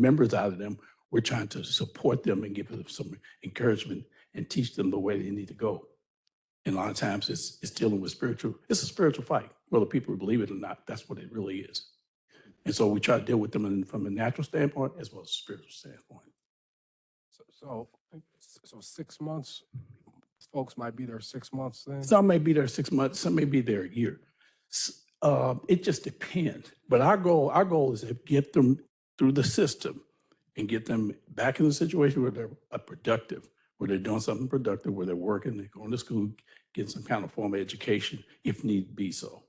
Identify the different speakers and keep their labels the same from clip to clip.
Speaker 1: members out of them, we're trying to support them and give them some encouragement and teach them the way they need to go. And a lot of times it's, it's dealing with spiritual, it's a spiritual fight, whether people believe it or not, that's what it really is. And so we try to deal with them in- from a natural standpoint as well as a spiritual standpoint.
Speaker 2: So- So, s- so six months, folks might be there six months then?
Speaker 1: Some may be there six months, some may be there a year. S- uh, It just depends. But our goal, our goal is to get them through the system and get them back in the situation where they're uh, productive, where they're doing something productive, where they're working, they're going to school, getting some kind of formal education if need be so.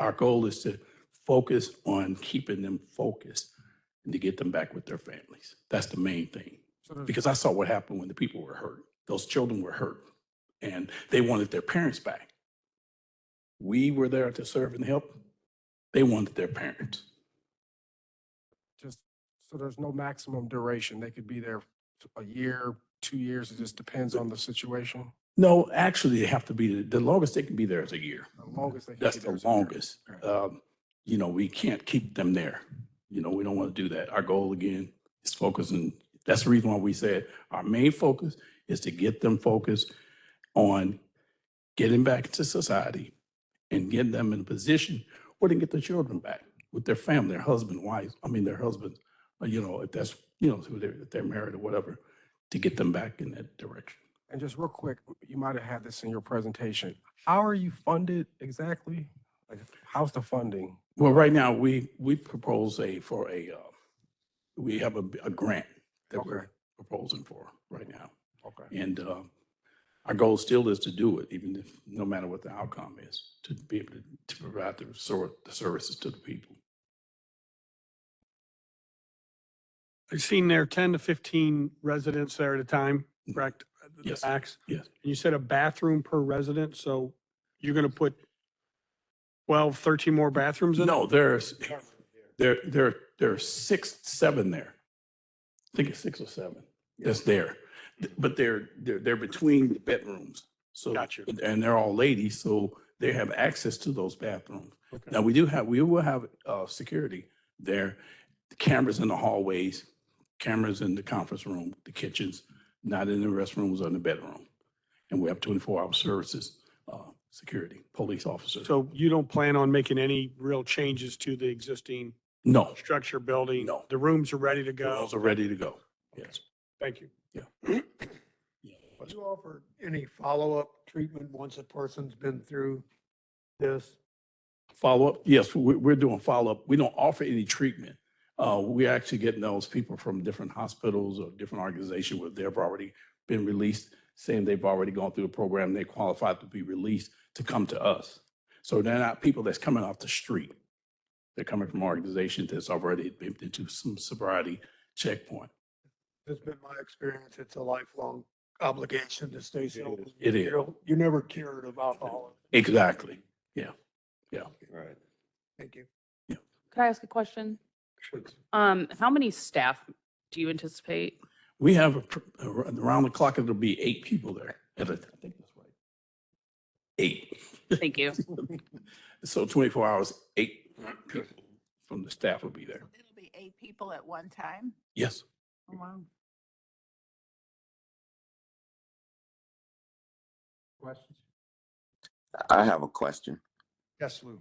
Speaker 1: Our goal is to focus on keeping them focused and to get them back with their families. That's the main thing
Speaker 2: So there's-
Speaker 1: because I saw what happened when the people were hurt. Those children were hurt and they wanted their parents back. We were there to serve and help. They wanted their parents.
Speaker 2: Just, so there's no maximum duration. They could be there t- a year, two years. It just depends on the situation.
Speaker 1: No, actually, they have to be, the longest they can be there is a year.
Speaker 2: The longest they. can
Speaker 1: That's
Speaker 2: be there
Speaker 1: the
Speaker 2: is a year.
Speaker 1: longest.
Speaker 2: Okay.
Speaker 1: Um, you know, we can't keep them there. You know, we don't want to do that. Our goal again is focus and that's the reason why we said our main focus is to get them focused on getting back into society and getting them in a position where they can get their children back with their family, their husband, wives, I mean, their husbands, uh, you know, if that's, you know, who they're, if they're married or whatever, to get them back in that direction.
Speaker 2: And just real quick, you might have had this in your presentation. How are you funded exactly? Like, how's the funding?
Speaker 1: Well, right now, we, we propose a, for a, uh, we have a, a grant that
Speaker 2: Okay.
Speaker 1: we're proposing for right now.
Speaker 2: Okay.
Speaker 1: And, uh, our goal still is to do it, even if, no matter what the outcome is, to be able to, to provide the sort, the services to the people.
Speaker 3: I've seen there ten to fifteen residents there at a time,
Speaker 1: Mhm.
Speaker 3: correct? At the
Speaker 1: Yes,
Speaker 3: Max?
Speaker 1: yes.
Speaker 3: And you said a bathroom per resident, so you're gonna put 12, 13 more bathrooms in?
Speaker 1: No, there's, there, there, there are six, seven there. I think it's six or seven that's there. Th- But they're, they're, they're between the bedrooms. So.
Speaker 3: Got you.
Speaker 1: And they're all ladies, so they have access to those bathrooms.
Speaker 3: Okay.
Speaker 1: Now, we do have, we will have, uh, security there, cameras in the hallways, cameras in the conference room, the kitchens, not in the restrooms or in the bedroom. And we have twenty-four hour services, uh, security, police officers.
Speaker 3: So you don't plan on making any real changes to the existing
Speaker 1: No,
Speaker 3: structure, building?
Speaker 1: No.
Speaker 3: The rooms are ready to
Speaker 1: the
Speaker 3: go?
Speaker 1: girls are ready to go. Yes.
Speaker 3: Thank you.
Speaker 4: Do you offer any follow-up treatment once a person's been through this?
Speaker 1: Follow-up, yes, we- we're doing follow-up. We don't offer any treatment. Uh, We're actually getting those people from different hospitals or different organizations where they've already been released, saying they've already gone through a program, they qualified to be released, to come to us. So they're not people that's coming off the street. They're coming from organizations that's already been into some sobriety checkpoint.
Speaker 4: It's been my experience, it's a lifelong obligation to stay sober.
Speaker 1: It
Speaker 4: You
Speaker 1: is,
Speaker 4: don't, you're never cured of alcohol.
Speaker 1: exactly.
Speaker 4: Right. Thank you.
Speaker 5: Could I ask a question?
Speaker 4: Sure.
Speaker 5: Um, how many staff do you anticipate?
Speaker 1: We have, a pr- ar- around the clock, it'll be eight people there at a, I think that's right. Eight.
Speaker 5: Thank you.
Speaker 1: So 24 hours, eight people from the staff will be there.
Speaker 6: So It'll be eight people at one time?
Speaker 1: Yes.
Speaker 6: Wow.
Speaker 4: Questions?
Speaker 7: I have a question.
Speaker 4: Yes, Lou.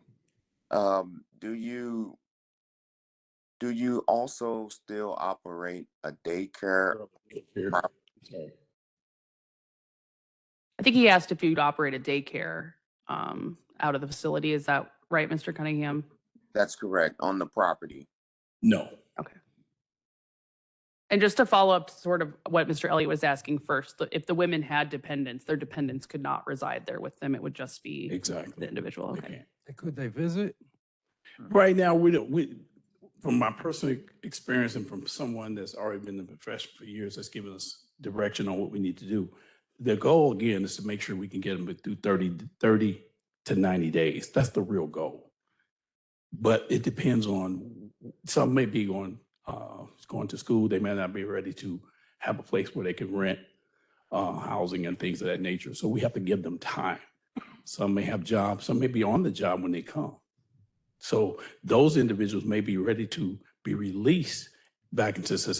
Speaker 7: Um, do you do you also still operate a daycare?
Speaker 1: Here.
Speaker 5: I think he asked if you'd operate a daycare, um, out of the facility. Is that right, Mr. Cunningham?
Speaker 7: That's correct, on the property.
Speaker 1: No.
Speaker 5: And just to follow up to sort of what Mr. Elliott was asking first, the- if the women had dependents, their dependents could not reside there with them. It would just be the
Speaker 1: Exactly.
Speaker 5: individual.
Speaker 1: They
Speaker 5: Okay.
Speaker 1: can't.
Speaker 2: Could they visit?
Speaker 1: Right now, we don't, we, from my personal experience and from someone that's already been in the profession for years, that's given us direction on what we need to do. The goal again is to make sure we can get them through 30, 30 to 90 days. That's the real goal. But it depends on, some may be going, uh, going to school. They may not be ready to have a place where they can rent, uh, housing and things of that nature. So we have to give them time. Some may have jobs, some may be on the job when they come. So those individuals may be ready to be released back into society.